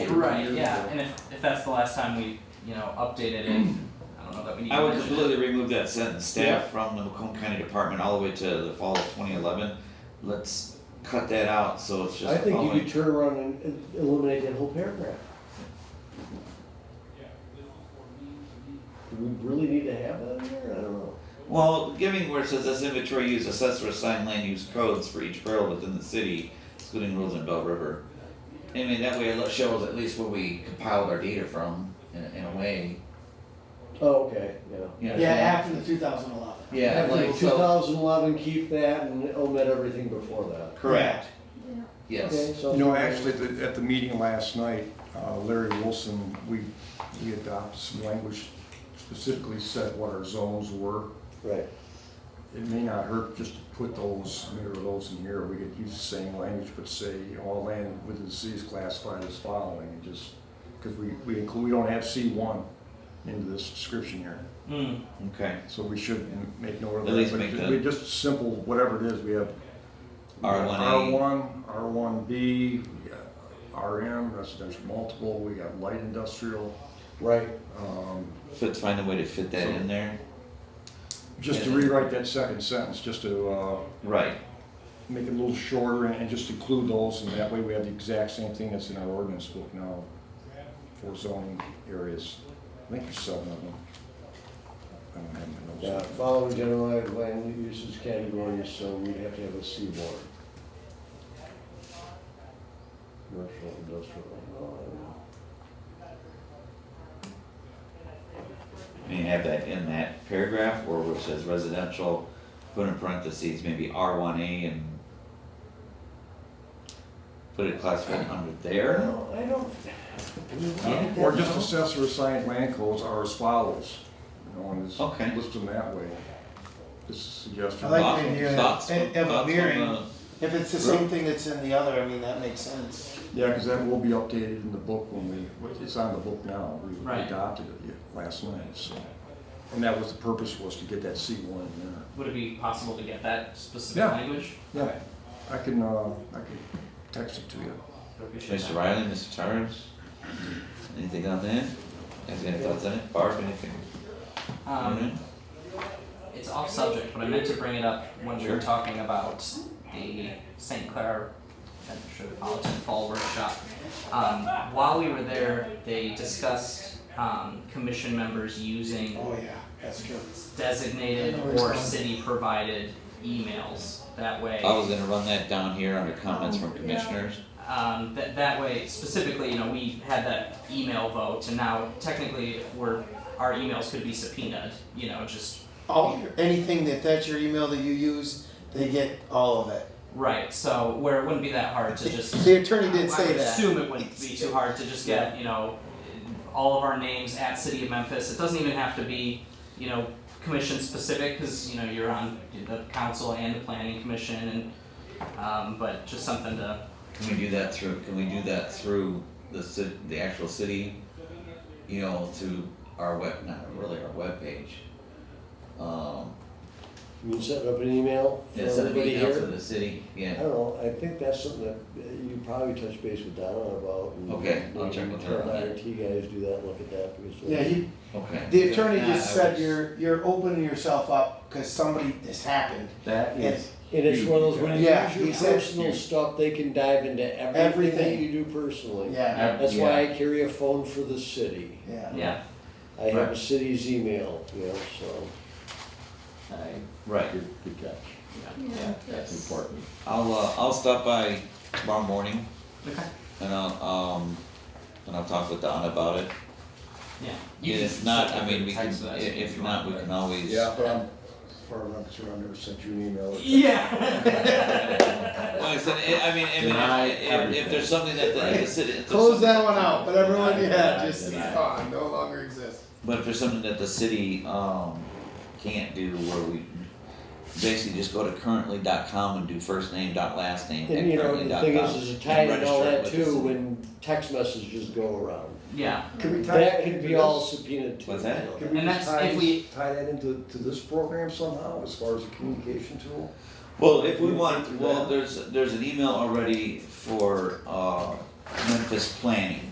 year. Right, yeah, and if, if that's the last time we, you know, updated it, I don't know that we need to I would mention it. completely remove that sentence, staff from the Macomb County Department all the way to the fall of twenty eleven. Let's cut that out, so it's I think just you could following. turn around and- and eliminate that whole paragraph. Do we really need to have that in there? I don't know. Well, giving where it says this inventory use assessor assigned land use codes for each borough within the city, excluding rules in Bell River. I mean, that way it shows at least where we compiled our data from, in, in a way, Oh, okay, yeah. you know. Yeah, after the two thousand eleven. Yeah, like, Two so, thousand eleven, keep that and omit everything before that. correct, yes. Okay, so- You know, actually, at the, at the meeting last night, uh, Larry Wilson, we, we adopted some language specifically said what our zones were. Right, It may not hurt just to put those, mirror those in here, we could use the same language, but say all land within the city is classified as following, and just, because we, we include, we don't have C one into this description here, Mm, Okay, so we should m- make no. At least make We the- just simple, whatever it is, we have R1A. R1, R1B, we got RM, residential multiple, we got light industrial. right. um, fit, find a way to fit that in there, Just to Yeah. rewrite that second sentence, just to uh, right, make it a little shorter and and just include those, and that way we have the exact same thing that's in our ordinance book now for zoning areas. I think there's seven of them. I don't have my Yeah, notes. following generalized land uses categories, so we'd have to have a C one. Commercial, industrial, uh, and you have that in that paragraph, or where it says residential, put in parentheses, maybe R one A and put it classified under there, No, I don't. Yeah. Or just assessor assigned land codes are as follows, you know, and just Okay. list them that way. Just a suggestion. I like Thoughts- the idea thoughts- of- of thoughts on uh, mirroring. the- If it's the same thing that's in the other, I mean, that makes sense. Yeah, because that will be updated in the book when we, it's on the book now, we Right. adopted it yeah, last night, so. And that was, the purpose was to get that C one in there. would it be possible to get that specific Yeah. language? Yeah, I can, uh, I can text it to you. I appreciate Mr. that. Riley, Mr. Torrance, anything on that? Has any thoughts on it, Barb, anything? on Um, it? it's off subject, but I meant to bring it up when we were Sure. talking about the St. Clair Metropolitan Fall Workshop. Um, while we were there, they discussed, um, commission members using Oh, yeah, that's true. designated or city-provided emails. That way, I was gonna run that down here under comments from commissioners, um, that, that way specifically, you know, we had that email vote and now technically if we're, our emails could be subpoenaed, you know, just, All, anything that, that's your email that you use, they get all of it. right, so where it wouldn't be that hard to just. The attorney did I say would that. assume it wouldn't be too hard to just get, you know, all of our names at City of Memphis. It doesn't even have to be, you know, commission specific, cause you know, you're on the council and the planning commission and, um, but just something to, can we do that through, can we do that through the ci- the actual city? You know, through our web, not really our webpage. Um, You mean setting up an email for instead of everybody being out to here? the city, I yeah, don't know, I think that's something that uh, you probably touch base with Donna about. and Okay, I'll maybe check with her on that. IRT guys do that, look at that, because. Yeah, he, okay. the attorney If not, just I said was- you're, you're opening yourself up, cause somebody, this happened. That And is, And it's one of those, when you Yeah, use exactly. your personal stuff, they can dive into everything that Everything. you do personally. Yeah, That's why I carry a phone for the city. yeah. yeah, I have a Right. city's email, you know, so. Right, good, good catch. yeah, that's important. I'll, uh, I'll stop by tomorrow morning okay, and I'll, um, and I'll talk with Don about it. yeah. You And can if not, I mean, we can, text i- us if you not, want, we but- can always, Yeah, but I'm, as far as I'm concerned, I've never sent you an email. Yeah. Well, I said, I I mean, I mean, Deny if- if, if there's something that the, if the city. if there's Close something- that one out, but everyone, yeah, Denied, just, it's denied. gone, no longer exists. But if there's something that the city, um, can't do where we basically just go to currently.com and do first name dot last name at And you know, the currently.com. thing is, is it tied and in all register it that with the too, city. when text messages go around. Yeah, Can we tie That into could be this? all subpoenaed too. What's that? you know. Can we And just that's tie, if we- tie that into, to this program somehow, as far as a communication tool? Well, if we You want, think through well, that? there's, there's an email already for, uh, Memphis planning.